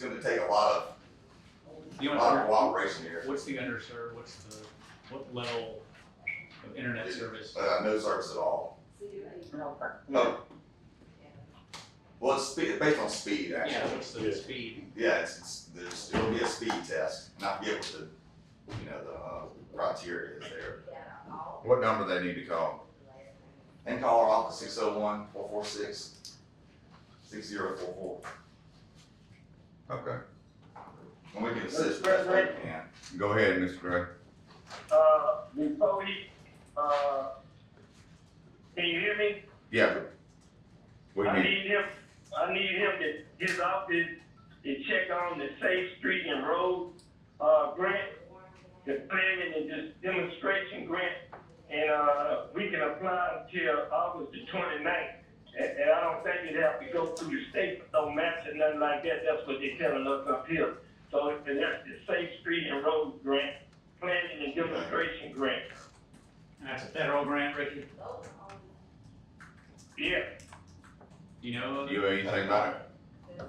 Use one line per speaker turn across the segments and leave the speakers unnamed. gonna take a lot
You
of, a
want
lot of
to,
cooperation here.
what's the underserved, what's the, what level of internet service?
Uh, no service at all. No. Well, it's spe based on speed,
Yeah,
actually.
what's the speed?
Yeah, it's, it's, there's, it'll be a speed test, and I forget what the, you know, the, uh, criteria is there.
What number they need to call?
And call our office six oh one four four six six zero four four,
Okay,
and we can assist.
Mr. President?
if we can.
go ahead, Mr. Gray.
Uh, Ms. Cody, uh, can you hear me?
Yeah. We
I
need,
need him, I need him to get out there and check on the Safe Street and Road, uh, grant, the planning and this demonstration grant. And, uh, we can apply until August the twenty-ninth. And, and I don't think it'd have to go through the state, no match or nothing like that. That's what they're telling us up here. So if that's the Safe Street and Road grant, planning and demonstration grant.
And that's a federal grant, Ricky?
Yeah,
Do you know? of it?
you know anything about it?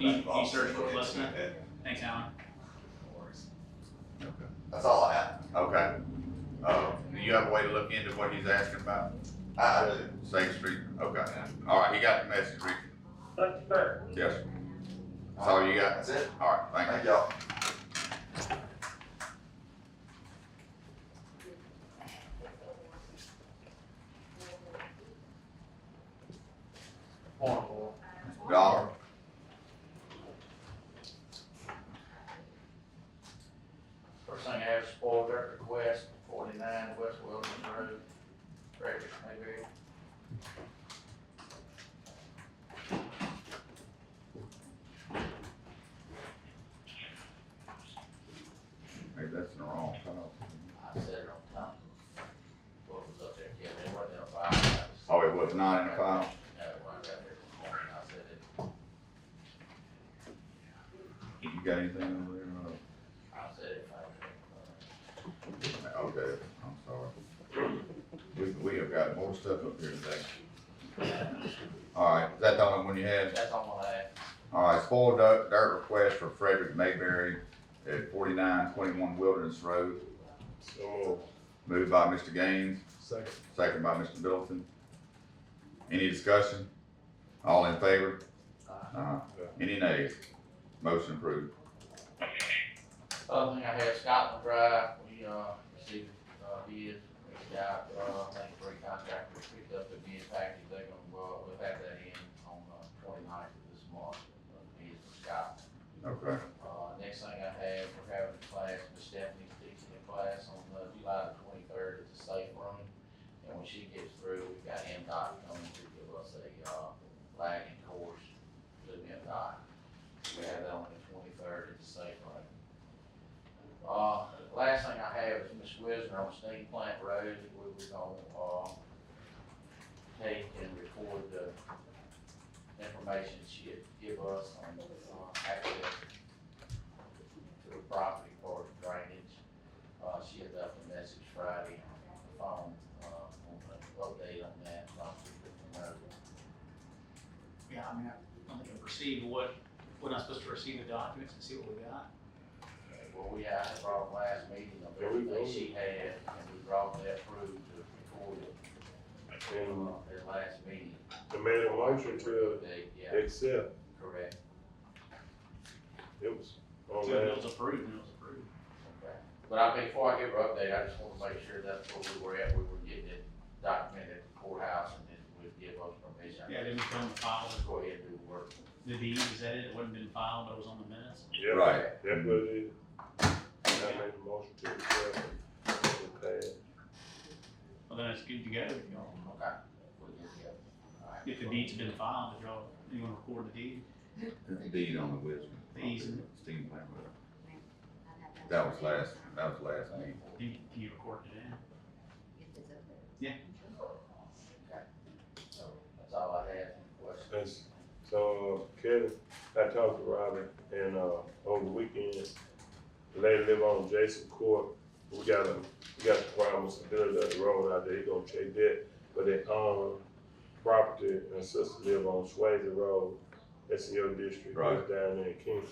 He- he searched for it last night. Thanks, Alan.
That's all I have.
Okay. Uh, do you have a way to look into what he's asking about?
I, I really
Safe Street, okay. All right, he got the message, Ricky.
that's fair.
Yes, sir. That's all you got?
That's it.
All right, thank you.
Thank y'all.
Dollar.
First thing I have is spoil dirt request, forty-nine West Wilson Road, Frederick, maybe.
Maybe that's in the wrong file.
I said it on time. What was up there, yeah, they weren't there five hours.
Oh, it was not in the file?
No, it wasn't out there this morning, I said it,
You got anything over there?
I said it five minutes.
Uh, Okay, I'm sorry. We, we have got more stuff up here today. All right, is that the only one you had?
That's all I have.
All right, spoiled dirt, dirt request for Frederick Mayberry at forty-nine twenty-one Wilderness Road. Moved by Mr. Gaines. Second. Second by Mr. Middleton. Any discussion? All in favor? Uh, any nays? Motion approved.
Other thing I have, Scotland Drive, we, uh, received, uh, bids, reached out, uh, I think three contractors picked up the bid package, they're gonna, uh, we'll have that in on, uh, twenty-ninth of this month, uh, bids for Scotland.
Okay,
Uh, next thing I have, we're having a class, Miss Stephanie's teaching a class on, uh, July the twenty-third at the safe room. And when she gets through, we've got MDOT coming to give us a, uh, lagging course to MDOT. We have that on the twenty-third at the safe room. Uh, last thing I have is Miss Wisner on Steam Plant Road, we were gonna, uh, take and record the information she had give us on, uh, access to the property for drainage. Uh, she had left a message Friday on the phone, uh, on the update on that, so I'm just looking at it.
Yeah, I mean, I don't think I've received what, what I'm supposed to receive the documents and see what we got.
Okay, Well, we had, I brought them last meeting of everything she had, and we brought that through to record it.
And
Uh, At last meeting,
I made a motion to
they, yeah,
accept,
correct,
it was
So
on
if
that.
it was approved, then it was approved.
okay. But I, before I give her update, I just wanna make sure that's where we were at, we were getting it documented at the courthouse, and then we'd give us permission.
Yeah, then we fill in the file,
Let's go ahead and do the work.
the deed, is that it? It wouldn't have been filed, but it was on the minutes.
Yeah,
right.
That was it. And I made a motion to accept it. it. passed.
Well, then it's good to go. if y'all-
Okay. We'll get uh, together. All right.
If the deed's been filed, if y'all, you wanna record the deed,
Deed on the Wisdom.
The easement.
Steam plant. That was last, that was last meeting.
do you, can you record it in?
So, that's all I had, any questions?
That's- So uh, Kevin, I talked to Robin and, uh, over the weekend, the lady live on Jason Court. We got a, we got a problem with some building up the road out there, he gonna check that, but they own property and sister live on Swayze Road. That's in your district,
Right.
down there in Kingston.